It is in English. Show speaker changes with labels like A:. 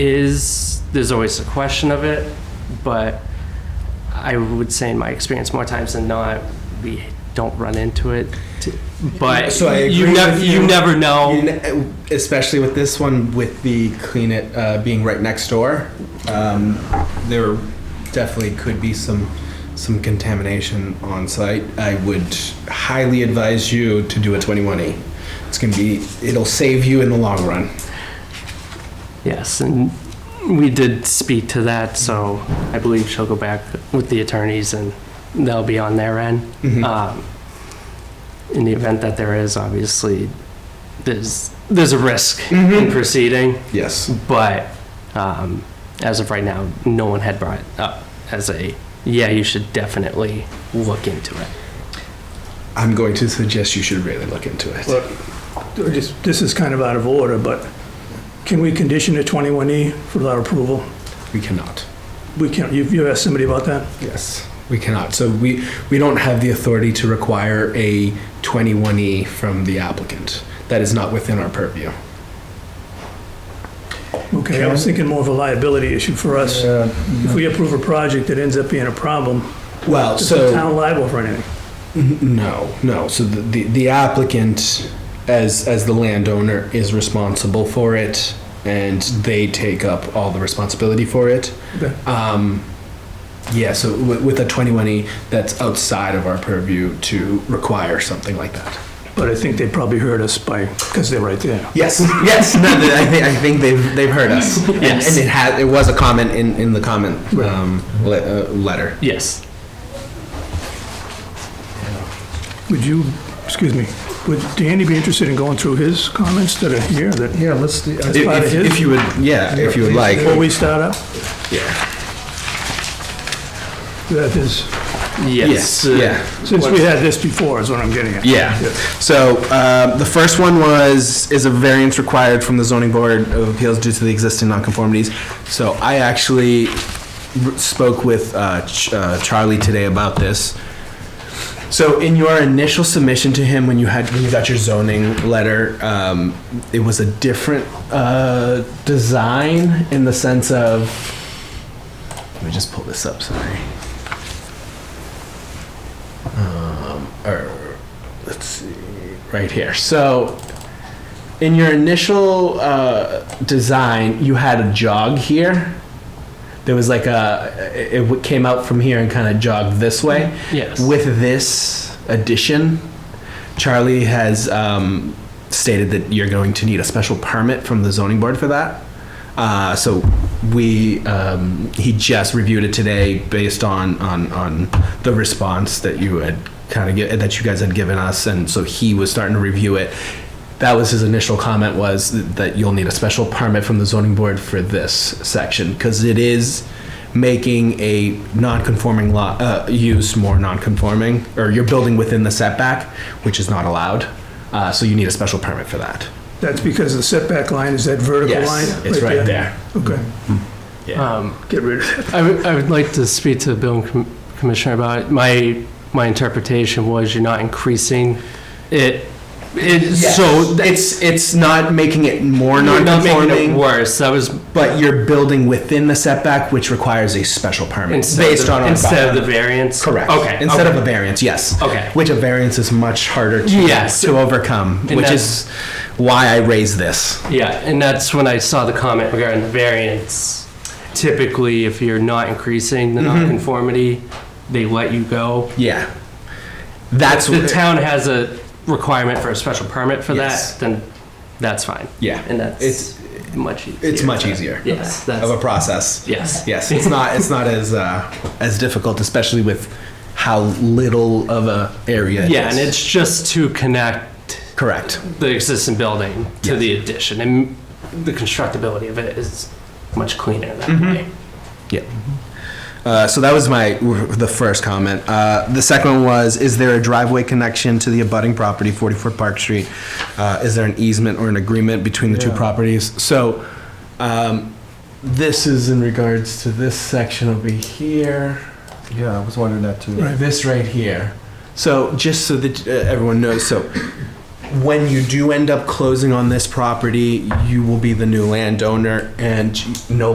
A: is, there's always a question of it, but I would say in my experience, more times than not, we don't run into it. t- But
B: So I
A: you
B: agree
A: never,
B: with
A: you
B: you.
A: never
B: You
A: know.
B: kn- especially with this one, with the clean it uh, being right next door, um, there definitely could be some some contamination on site. I would highly advise you to do a 21E. It's gonna be it'll save you in the long run.
A: Yes, and we did speak to that, so I believe she'll go back with the attorneys and they'll be on their end.
B: Mhm.
A: Um, In the event that there is, obviously, there's, there's a risk in
B: Mhm.
A: proceeding.
B: Yes.
A: But um, as of right now, no one had brought it up as a, yeah, you should definitely look into it.
B: I'm going to suggest you should really look into it.
C: Well- Or just, this is kind of out of order, but can we condition a 21E without approval?
B: we cannot.
C: We can't, you've, you asked somebody about that?
B: Yes. We cannot. So we we don't have the authority to require a 21E from the applicant. That is not within our purview.
C: Okay, I was thinking more of a liability issue for us. If we approve a project that ends up being a problem,
B: Well,
C: is
B: so
C: the town liable for anything?
B: N- No, no. So the, the, the applicant, as, as the landowner, is responsible for it and they take up all the responsibility for it.
C: Okay.
B: Um, yeah, so with, with a 21E, that's outside of our purview to require something like that.
C: But I think they probably heard us by, because they're right there.
B: Yes, yes. No, th- I think I think they've they've heard us. And-
A: Yes.
B: and, it had it was a comment in, in the comment
C: Right.
B: um, le- uh, letter.
A: Yes.
C: Would you, excuse me, would Danny be interested in going through his comments that are here, that,
D: Yeah, let's, do- I-
C: That's part of
B: if,
C: his?
B: if you would, yeah, if you would like,
C: before we start up?
B: yeah,
C: That is,
A: Yes.
B: yes,
C: uh,
B: yeah.
C: since we had this before, is what I'm getting at.
B: Yeah. So uh, the first one was, is a variance required from the zoning board of appeals due to the existing nonconformities? So I actually r- spoke with uh, Ch- uh, Charlie today about this. So in your initial submission to him, when you had, when you got your zoning letter, um, it was a different uh, design in the sense of, let me just pull this up, sorry. Um, or, let's see, right here. So, in your initial uh, design, you had a jog here. There was like a, it it w- came out from here and kind of jogged this way.
A: Yes.
B: With this addition, Charlie has um, stated that you're going to need a special permit from the zoning board for that. Uh, so we, um, he just reviewed it today based on, on, on the response that you had kind of, gi- that you guys had given us. And so he was starting to review it. That was his initial comment was that you'll need a special permit from the zoning board for this section because it is making a non-conforming lot, uh, use more non-conforming, or you're building within the setback, which is not allowed. Uh, so you need a special permit for that.
C: That's because the setback line is that vertical line?
B: Yes, it's right there.
C: Okay,
A: Um,
C: get rid of it.
A: I would, I would like to speak to the building com- commissioner about it. My, my interpretation was you're not increasing it. It, so
B: So it's, it's not making it more
A: you're not making it
B: non-conforming,
A: worse. That was
B: but you're building within the setback, which requires a special permit
A: instead of,
B: based
A: the-
B: on. our
A: instead of the
B: bylaw.
A: variance.
B: Correct.
A: Okay.
B: Instead
A: okay.
B: of a variance, yes.
A: Okay.
B: Which a variance is much harder to.
A: Yes.
B: To overcome,
A: And
B: which
A: that's-
B: is why I raised this.
A: Yeah, and that's when I saw the comment regarding the variance. Typically, if you're not increasing
B: Mm-hmm.
A: the nonconformity, they let you go.
B: Yeah. That's.
A: The town has a requirement for a special permit for that,
B: Yes.
A: then that's fine.
B: Yeah.
A: And that's
B: It's-
A: much easier.
B: It's much easier.
A: Yes,
B: Of a
A: that's,
B: process.
A: yes.
B: Yes, it's not, it's not as, uh, as difficult, especially with how little of a area. it
A: Yeah, and
B: is.
A: it's just to connect
B: Correct.
A: the existing building to the addition, and the constructability of it is much cleaner that
B: Mm-hmm.
A: way.
B: Yeah. Uh, so that was my the first comment. Uh, the second one was: Is there a driveway connection to the abutting property, 44 Park Street? Uh, is there an easement or an agreement between the two
D: Yeah.
B: properties? So, um, this is in regards to this section over here.
D: yeah, I was wondering that too.
B: This right here. So just so that uh, everyone knows, so when you do end up closing on this property, you will be the new landowner and no